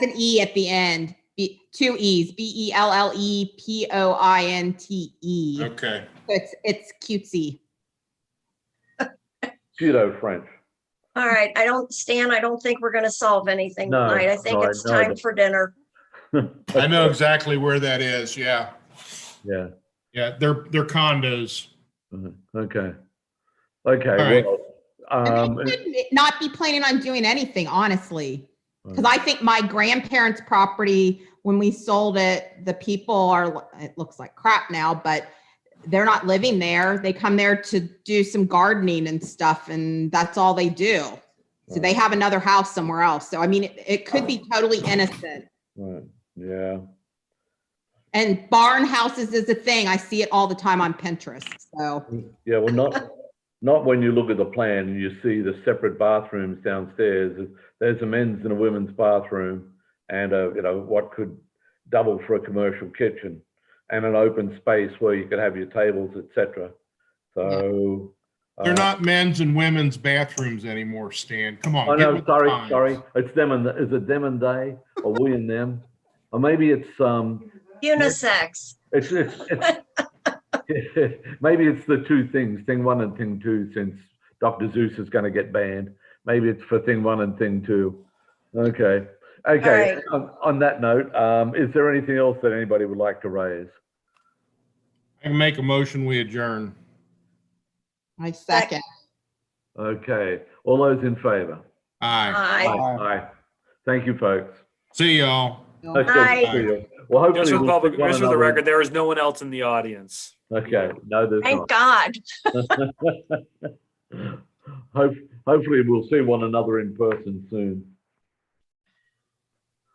an E at the end, B, two E's, B E L L E P O I N T E. So Okay, It's, it's cutesy. pseudo French. All right, I don't, Stan, I don't think we're gonna solve anything No, tonight. I think no, I- it's no, I time don't. for dinner. I know exactly where that is, yeah, Yeah, yeah, they're, they're condos. mhm, okay. Okay, right. well, And um, they should Not be planning on doing anything, honestly. Because Right. I think my grandparents' property, when we sold it, the people are, it looks like crap now, but they're not living there. They come there to do some gardening and stuff, and that's all they do. So they have another house somewhere else. So I mean, it, it could be totally innocent. right, yeah, And barn houses is a thing. I see it all the time on Pinterest. So yeah, well, not, not when you look at the plan and you see the separate bathrooms downstairs. There's a men's and a women's bathroom and a, you know, what could double for a commercial kitchen and an open space where you could have your tables, et cetera. So. They're uh, not men's and women's bathrooms anymore, Stan, come on. Oh, get no, with the sorry, times. sorry. It's them and, is it them and they or we and them? Or maybe it's, um, Unisex. it's, it's, it's- maybe it's the two things, thing one and thing two, since Dr. Zeus is going to get banned. Maybe it's for thing one and thing two. Okay. Okay. right. On, on that note, um, is there anything else that anybody would like to raise? I can make a motion, we adjourn. I second. Okay. All those in favor? Aye, Aye. Aye. Thank you, folks. see y'all. Okay, Aye. see you. Well, hopefully. Just for the we'll public, see one just for the another- record, there is no one else in the audience. Okay. No, there's not. Thank God. Hope, hopefully we'll see one another in person soon.